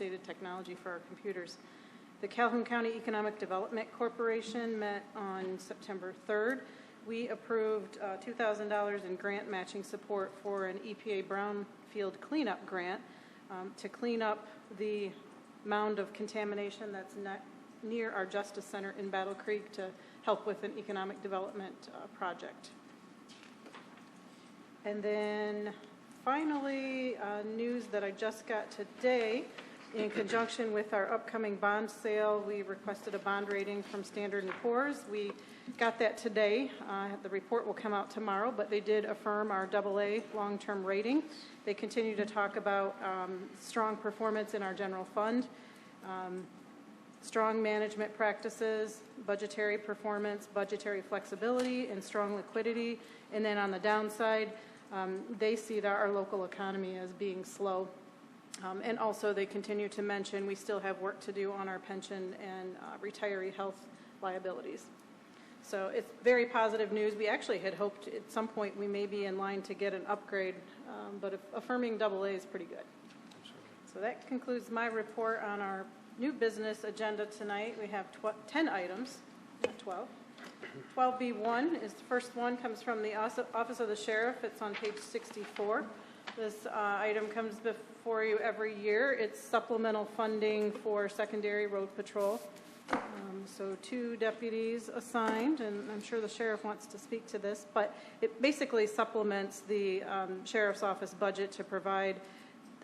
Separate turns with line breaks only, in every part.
updated technology for our computers. The Calhoun County Economic Development Corporation met on September 3rd. We approved uh, $2,000 in grant matching support for an EPA brownfield cleanup grant um, to clean up the mound of contamination that's ne- near our Justice Center in Battle Creek to help with an economic development uh, project. And then finally, uh, news that I just got today, in conjunction with our upcoming bond sale, we requested a bond rating from Standard & Poor's. We got that today. Uh, The report will come out tomorrow, but they did affirm our AA long-term rating. They continue to talk about um, strong performance in our general fund strong management practices, budgetary performance, budgetary flexibility, and strong liquidity. And then on the downside, um, they see that our local economy as being slow. Um, And also, they continue to mention, we still have work to do on our pension and uh, retiree health liabilities. So it's very positive news. We actually had hoped at some point we may be in line to get an upgrade, um, but affirming double A is pretty good. So that concludes my report on our new business agenda tonight. We have tw- 10 items, not 12. 12B1 is the first one, comes from the Os- Office of the Sheriff. It's on page 64. This uh, item comes before you every year. It's supplemental funding for secondary road patrol. Um, So two deputies assigned, and I'm sure the sheriff wants to speak to this, but it basically supplements the um, sheriff's office budget to provide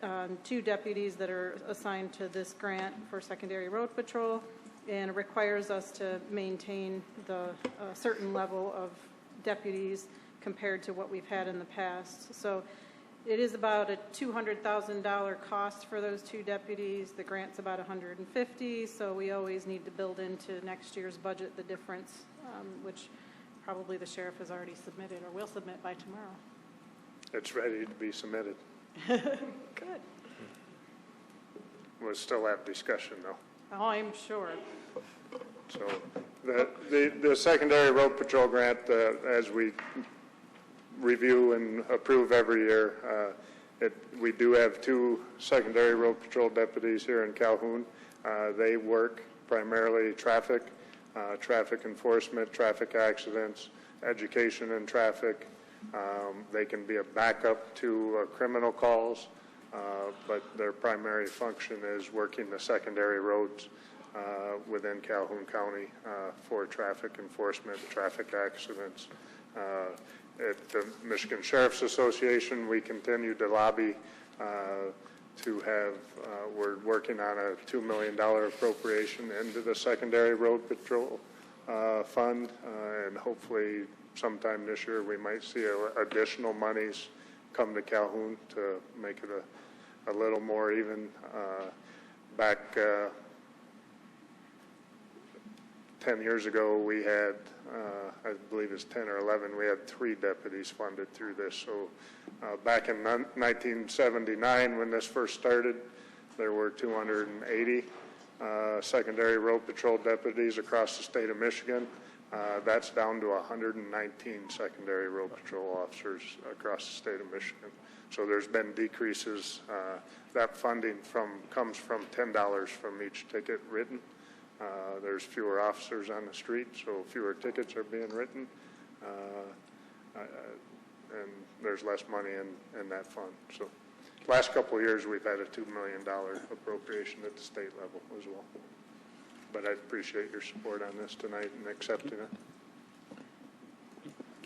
um, two deputies that are assigned to this grant for secondary road patrol, and it requires us to maintain the uh, certain level of deputies compared to what we've had in the past. So it is about a $200,000 cost for those two deputies. The grant's about 150, so we always need to build into next year's budget the difference, um, which probably the sheriff has already submitted or will submit by tomorrow.
It's ready to be submitted.
Good.
We'll still have discussion, though.
Oh, I'm sure.
So the, the, the secondary road patrol grant, uh, as we review and approve every year, uh, it, we do have two secondary road patrol deputies here in Calhoun. Uh, they work primarily traffic, uh, traffic enforcement, traffic accidents, education in traffic. Um, they can be a backup to uh, criminal calls, uh, but their primary function is working the secondary roads uh, within Calhoun County uh, for traffic enforcement, traffic accidents. Uh, At the Michigan Sheriff's Association, we continue to lobby uh, to have, uh, we're working on a $2 million appropriation into the secondary road patrol uh, fund, uh, and hopefully sometime this year, we might see a- additional monies come to Calhoun to make it a, a little more even. Uh, Back uh, 10 years ago, we had, uh, I believe it's 10 or 11, we had three deputies funded through this. So uh, back in nun- 1979, when this first started, there were 280 uh, secondary road patrol deputies across the state of Michigan. Uh, That's down to 119 secondary road patrol officers across the state of Michigan. So there's been decreases. Uh, That funding from, comes from $10 from each ticket written. Uh, There's fewer officers on the street, so fewer tickets are being written, uh, I- I- and there's less money in, in that fund. So last couple of years, we've had a $2 million appropriation at the state level as well. But I appreciate your support on this tonight and accepting it.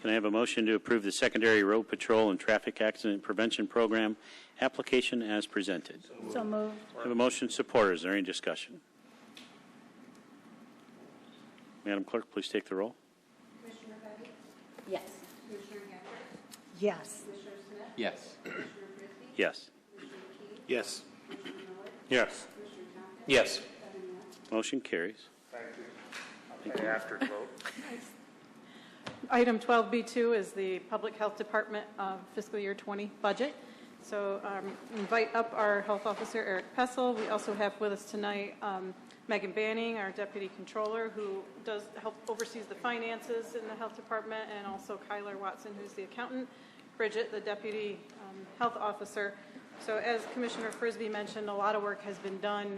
Can I have a motion to approve the secondary road patrol and traffic accident prevention program application as presented?
So moved.
I Have a motion support. Is there any discussion? Madam Clerk, please take the roll.
Yes. Yes.
Yes.
Yes.
Yes. Yes. Yes.
Motion carries.
Any after vote?
Item 12B2 is the Public Health Department uh, fiscal year 20 budget. So um, invite up our health officer, Eric Pessel. We also have with us tonight um, Megan Banning, our deputy controller, who does, help oversees the finances in the health department, and also Kyler Watson, who's the accountant, Bridget, the deputy um, health officer. So as Commissioner Frisbee mentioned, a lot of work has been done